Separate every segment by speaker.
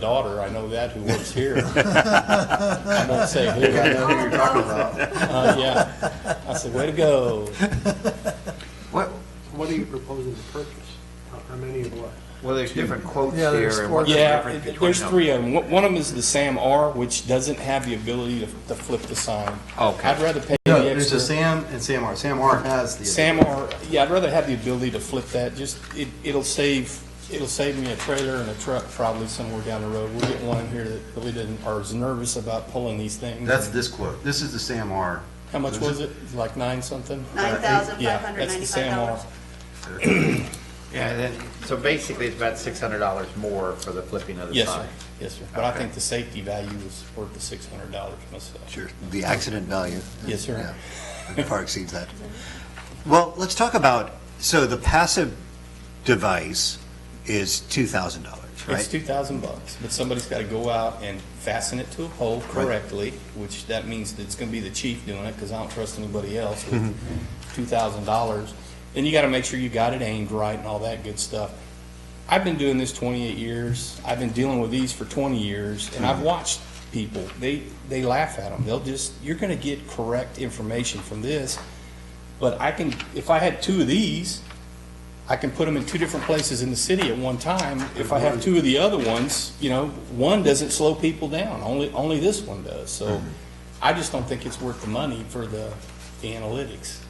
Speaker 1: daughter, I know that, who works here. I won't say who.
Speaker 2: I know who you're talking about.
Speaker 1: Uh, yeah. I said, way to go.
Speaker 2: What,
Speaker 3: What are you proposing to purchase? How- How many of what?
Speaker 2: well, there's different quotes
Speaker 3: Yeah, there's
Speaker 2: here and what's the
Speaker 1: Yeah,
Speaker 2: difference between
Speaker 1: there's
Speaker 2: them?
Speaker 1: three of them. One one of them is the Sam R, which doesn't have the ability to to flip the sign.
Speaker 2: Okay.
Speaker 1: I'd rather pay
Speaker 3: No,
Speaker 1: the
Speaker 3: there's a
Speaker 1: extra.
Speaker 3: Sam and Sam R. Sam R has the.
Speaker 1: Sam R, yeah, I'd rather have the ability to flip that. Just, it, it'll save, it'll save me a trailer and a truck probably somewhere down the road. We'll get one in here that really didn't, or is nervous about pulling these things.
Speaker 3: That's this quote. This is the Sam R.
Speaker 1: How much was it? Like nine something?
Speaker 4: Nine thousand five
Speaker 1: Uh, Yeah,
Speaker 4: hundred
Speaker 1: that's the Sam
Speaker 4: ninety-five dollars.
Speaker 1: R.
Speaker 2: Yeah, and then, so basically, it's about six hundred dollars more for the flipping of the
Speaker 1: Yes, sir.
Speaker 2: sign.
Speaker 1: Yes, sir. But I think the safety value is worth the six hundred dollars myself.
Speaker 5: Sure, the accident value.
Speaker 1: Yes, sir.
Speaker 5: Yeah, Far exceeds that. Well, let's talk about, so the passive device is $2,000, right?
Speaker 1: It's two thousand bucks, but somebody's gotta go out and fasten it to a pole correctly, which that means it's gonna be the chief doing it, cause I don't trust anybody else with two thousand dollars. Then you gotta make sure you got it aimed right and all that good stuff. I've been doing this twenty-eight years, I've been dealing with these for twenty years, and I've watched people, they, they laugh at them, they'll just, you're gonna get correct information from this. But I can, if I had two of these, I can put them in two different places in the city at one time. If I have two of the other ones, you know, one doesn't slow people down, only, only this one does. So I just don't think it's worth the money for the, the analytics.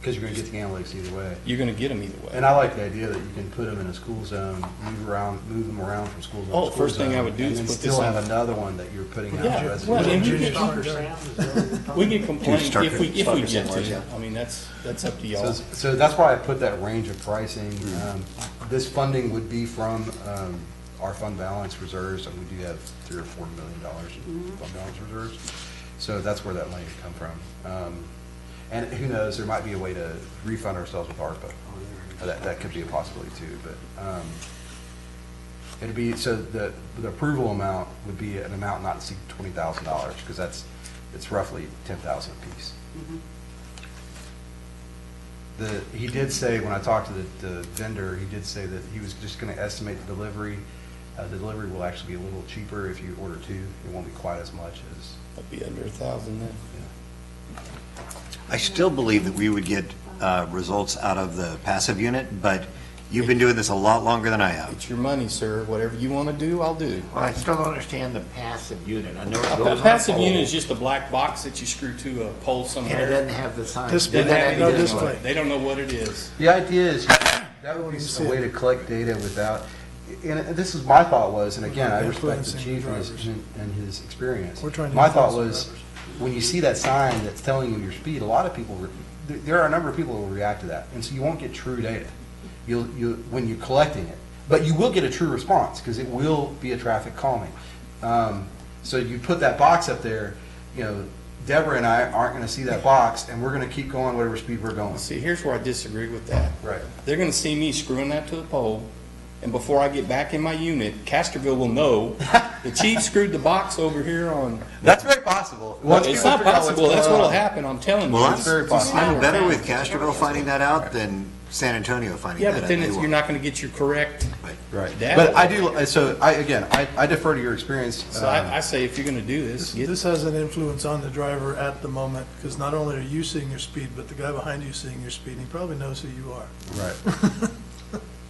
Speaker 3: Because you're going to get the analytics either way.
Speaker 1: You're gonna get them either way.
Speaker 3: And I like the idea that you can put them in a school zone, move around, move them around from school zone.
Speaker 1: Oh,
Speaker 3: to school
Speaker 1: first thing I
Speaker 3: zone,
Speaker 1: would do
Speaker 3: and
Speaker 1: is
Speaker 3: then
Speaker 1: put this
Speaker 3: Still
Speaker 1: on-
Speaker 3: have another one that you're putting out.
Speaker 1: Yeah,
Speaker 3: to residents.
Speaker 1: well, and you
Speaker 3: So
Speaker 1: get- We can complain
Speaker 5: Start-
Speaker 1: if we, if
Speaker 5: start
Speaker 1: we
Speaker 5: it
Speaker 1: get
Speaker 5: somewhere,
Speaker 1: to,
Speaker 5: yeah.
Speaker 1: it. I mean, that's, that's up to y'all.
Speaker 3: it's- So that's why I put that range of pricing. Um, This funding would be from um, our fund balance reserves, and we do have three or four million dollars in fund balance reserves. So that's where that money would come from. Um, And who knows, there might be a way to refund ourselves with ARPA. That, that could be a possibility too, but um, it'd be, so the, the approval amount would be an amount not to exceed twenty thousand dollars, because that's, it's roughly ten thousand apiece. The, he did say, when I talked to the, the vendor, he did say that he was just gonna estimate the delivery. Uh, the delivery will actually be a little cheaper if you order two. It won't be quite as much as,
Speaker 1: That'd be under a thousand then.
Speaker 5: I still believe that we would get uh, results out of the passive unit, but you've been doing this a lot longer than I have.
Speaker 1: It's your money, sir. Whatever you wanna do, I'll do.
Speaker 2: Well, I still don't understand the passive unit. I know it goes on
Speaker 1: A
Speaker 2: a
Speaker 1: passive
Speaker 2: pole,
Speaker 1: unit is just a black box that you screw to a pole
Speaker 2: And it
Speaker 1: somewhere.
Speaker 2: doesn't have the sign.
Speaker 6: Display.
Speaker 2: Doesn't have
Speaker 6: No
Speaker 2: any
Speaker 6: display.
Speaker 1: They don't know what it is.
Speaker 3: The idea is, that would be a way to collect data without, and this is, my thought was, and again, I respect the chief and his, and his experience.
Speaker 6: We're trying to
Speaker 3: My thought
Speaker 6: influence
Speaker 3: was,
Speaker 6: the
Speaker 3: when you see that sign that's telling you your speed, a lot of people, re- there- there are a number of people who will react to that, and so you won't get true data. You'll, you, when you're collecting it, but you will get a true response, because it will be a traffic calming. Um, So you put that box up there, you know, Deborah and I aren't gonna see that box, and we're gonna keep going whatever speed we're going.
Speaker 1: See, here's where I disagree with that.
Speaker 3: Right.
Speaker 1: They're gonna see me screwing that to the pole, and before I get back in my unit, Casterville will know the chief screwed the box over here on.
Speaker 3: That's very possible. Once
Speaker 1: It's
Speaker 3: people
Speaker 1: not
Speaker 3: figure out what's
Speaker 1: possible, that's
Speaker 3: going
Speaker 1: what'll
Speaker 3: on.
Speaker 1: happen, I'm telling you.
Speaker 5: Well,
Speaker 1: It's-
Speaker 3: very
Speaker 5: I'm,
Speaker 3: possible.
Speaker 5: I'm better with Castroville finding that out than San Antonio finding
Speaker 1: Yeah,
Speaker 5: that out.
Speaker 1: but then
Speaker 5: They
Speaker 1: it's- you're
Speaker 5: won't.
Speaker 1: not gonna get your correct
Speaker 5: Right.
Speaker 3: Right.
Speaker 1: data.
Speaker 3: But I do, so I, again, I I defer to your experience.
Speaker 1: So
Speaker 3: um,
Speaker 1: I, I say, if you're gonna do this, get,
Speaker 6: This has an influence on the driver at the moment, because not only are you seeing your speed, but the guy behind you seeing your speed, and he probably knows who you are.
Speaker 3: Right.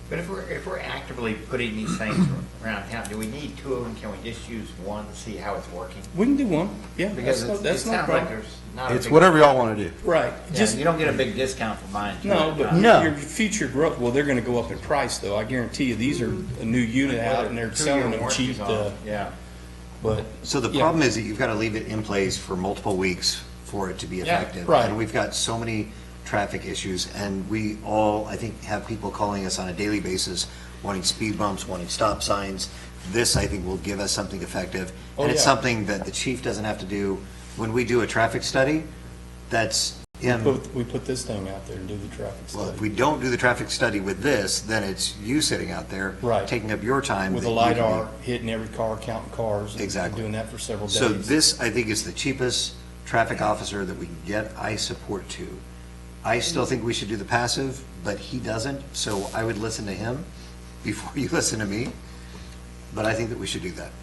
Speaker 2: But if we're, if we're actively putting these things around town, do we need two of them? Can we just use one to see how it's working?
Speaker 1: we can do one, yeah, that's
Speaker 2: Because
Speaker 1: no,
Speaker 2: it's- it
Speaker 1: that's no
Speaker 2: sounds like
Speaker 1: problem.
Speaker 2: there's not a
Speaker 3: It's
Speaker 2: big-
Speaker 3: whatever y'all want to do.
Speaker 1: Right,
Speaker 2: Yeah,
Speaker 1: just,
Speaker 2: You don't get a big discount for mine. do
Speaker 1: no,
Speaker 2: you?
Speaker 1: but
Speaker 3: No.
Speaker 1: your future growth, well, they're gonna go up in price, though, I guarantee you, these are a new unit out, and they're
Speaker 2: Two-year
Speaker 1: selling them
Speaker 2: warranties
Speaker 1: cheap,
Speaker 2: on
Speaker 1: uh,
Speaker 2: it, Yeah.
Speaker 1: but.
Speaker 5: So the
Speaker 1: Yeah.
Speaker 5: problem is that you've got to leave it in place for multiple weeks for it to be
Speaker 1: Yeah,
Speaker 5: effective.
Speaker 1: right.
Speaker 5: And we've got so many traffic issues, and we all, I think, have people calling us on a daily basis wanting speed bumps, wanting stop signs. This, I think, will give us something effective.
Speaker 1: Oh,
Speaker 5: And it's
Speaker 1: yeah.
Speaker 5: something that the chief doesn't have to do. When we do a traffic study, that's him.
Speaker 1: But we put this thing out there and do the traffic
Speaker 5: Well, if
Speaker 1: study
Speaker 5: we don't do the traffic study with this, then it's you sitting out there.
Speaker 1: Right.
Speaker 5: Taking up your time.
Speaker 1: with
Speaker 5: that
Speaker 1: a
Speaker 5: you can be-
Speaker 1: LiDAR, hitting every car, counting cars. and
Speaker 5: Exactly.
Speaker 1: Doing that for several days.
Speaker 5: So this, I think, is the cheapest traffic officer that we can get. I support two. I still think we should do the passive, but he doesn't, so I would listen to him before you listen to me. but I think that we should do that.